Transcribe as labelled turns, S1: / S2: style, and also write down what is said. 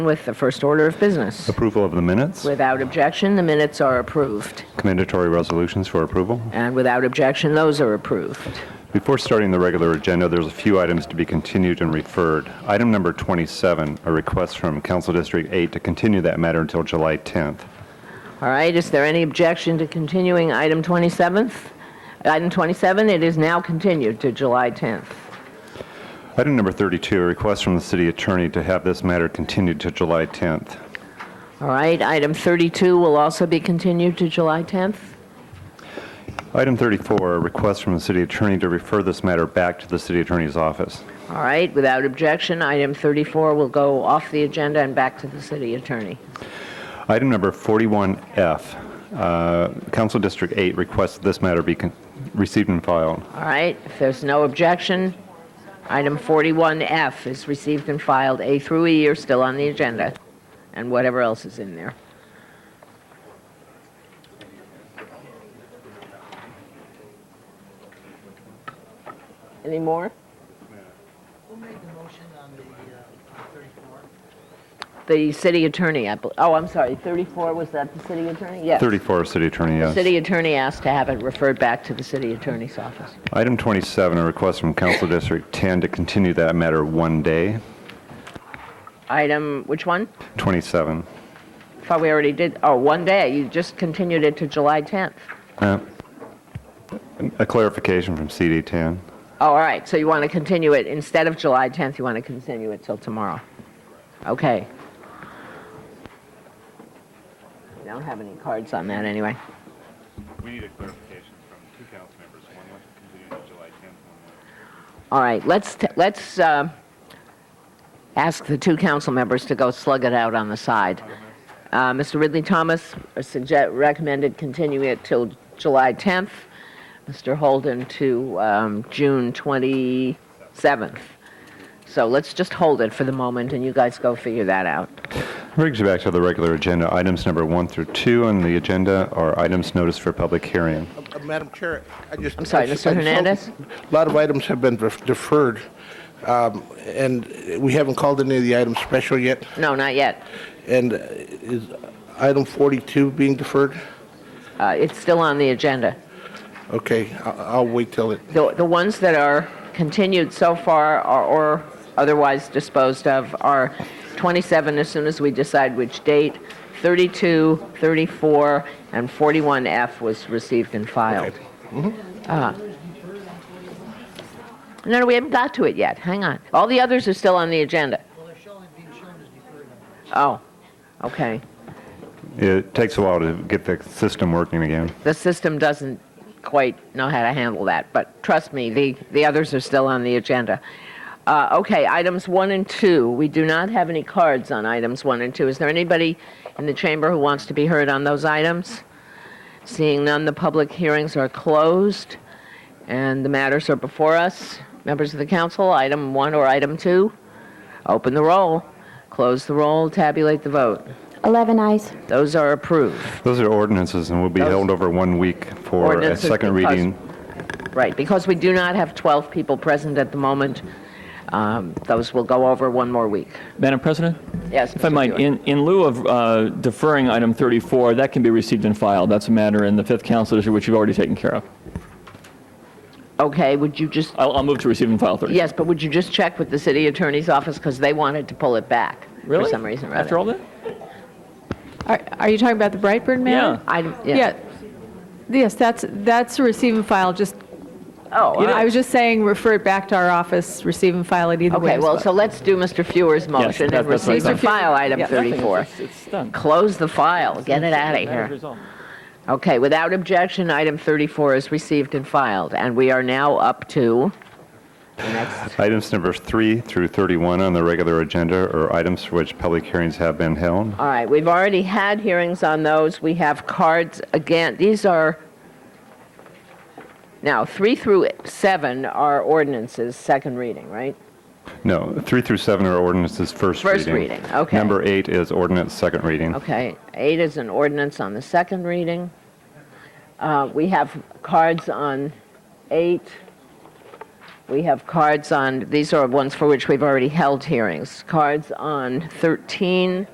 S1: with the first order of business.
S2: Approval of the minutes,
S1: Without objection, the minutes are approved.
S2: commendatory resolutions for approval.
S1: And without objection, those are approved.
S2: Before starting the regular agenda, there's a few items to be continued and referred. Item number 27, a request from Council District 8 to continue that matter until July 10th.
S1: All right, is there any objection to continuing item 27th? Item 27, it is now continued to July 10th.
S2: Item number 32, a request from the city attorney to have this matter continued to July 10th.
S1: All right, item 32 will also be continued to July 10th.
S2: Item 34, a request from the city attorney to refer this matter back to the city attorney's office.
S1: All right, without objection, item 34 will go off the agenda and back to the city attorney.
S2: Item number 41F, uh, Council District 8 requests this matter be con- received and filed.
S1: All right, if there's no objection, item 41F is received and filed. A through E are still on the agenda, and whatever else is in there. Any more?
S3: Who made the motion on the uh, on 34?
S1: The city attorney, I bel oh, I'm sorry, 34, was that the city attorney? Yes.
S2: 34, city attorney, yes.
S1: City attorney asked to have it referred back to the city attorney's office.
S2: Item 27, a request from Council District 10 to continue that matter one day.
S1: Item, which one?
S2: 27.
S1: Thought we already did, oh, one day, you just continued it to July 10th.
S2: Uh, A clarification from CD 10.
S1: Oh, all right, so you want to continue it, instead of July 10th, you want to continue it till tomorrow? Okay. I don't have any cards on that, anyway.
S2: We need a clarification from two council members. One wants to continue to July 10th.
S1: All right, let's, t- let's uh, ask the two council members to go slug it out on the side. Uh, Mr. Ridley Thomas sugge- recommended continuing it till July 10th, Mr. Holden to um, June 27th. So let's just hold it for the moment, and you guys go figure that out.
S2: Brings you back to the regular agenda. Items number one through two on the agenda are items noticed for public hearing.
S3: Uh, Madam Chair, I just...
S1: I'm sorry,
S3: I just-
S1: Mr.
S3: I just-
S1: Hernandez?
S3: A lot of items have been def- deferred, um, and we haven't called any of the items special yet.
S1: No, not yet.
S3: And uh, is item 42 being deferred?
S1: Uh, It's still on the agenda.
S3: Okay, I- I'll wait till it,
S1: The, the ones that are continued so far are, or otherwise disposed of are 27 as soon as we decide which date, 32, 34, and 41F was received and filed. Ah. No, no, we haven't got to it yet. Hang on. All the others are still on the agenda. Oh, okay.
S2: It takes a while to get the system working again.
S1: the system doesn't quite know how to handle that, but trust me, the, the others are still on the agenda. Uh, okay, items one and two. We do not have any cards on items one and two. Is there anybody in the chamber who wants to be heard on those items? Seeing none, the public hearings are closed, and the matters are before us. Members of the council, item one or item two, open the roll, close the roll, tabulate the vote.
S4: 11 eyes.
S1: Those are approved.
S2: Those are ordinances and will be held over one week for a
S1: Ordinances
S2: second
S1: because-
S2: reading.
S1: Right, because we do not have 12 people present at the moment, um, those will go over one more week.
S5: Madam President?
S1: Yes,
S5: If I
S1: Mr.
S5: might,
S1: Buick.
S5: in in lieu of uh, deferring item 34, that can be received and filed. That's a matter in the Fifth Council District, which you've already taken care of.
S1: Okay, would you just,
S5: I'll I'll move to receive and file 34.
S1: yes, but would you just check with the city attorney's office, because they wanted to pull it back for
S5: Really?
S1: some reason or
S5: After
S1: other.
S5: all that?
S6: Are, are you talking about the Brightburn matter?
S1: I-
S6: Yeah.
S1: yeah.
S6: Yes, that's, that's a receive and file, just,
S1: Oh, all
S6: I
S1: right.
S6: was just saying, refer it back to our office, receive and file it either way.
S1: okay,
S6: as
S1: well, so let's do Mr. Feuer's motion
S5: that-
S1: and
S5: that's what I
S1: receive and
S6: thought.
S1: file item
S6: Yeah, nothing is-
S1: 34.
S5: It's- It's done.
S1: Close the file, get it out of here. Okay, without objection, item 34 is received and filed, and we are now up to the next,
S2: Items number three through 31 on the regular agenda are items for which public hearings have been held.
S1: all right, we've already had hearings on those, we have cards, again, these are, now, 3 through 7 are ordinances, second reading, right?
S2: No, three through seven are ordinances first reading.
S1: First reading, okay.
S2: Number eight is ordinance second reading.
S1: Okay, 8 is an ordinance on the second reading. Uh, We have cards on 8, We have cards on, these are ones for which we've already held hearings. Cards on 13,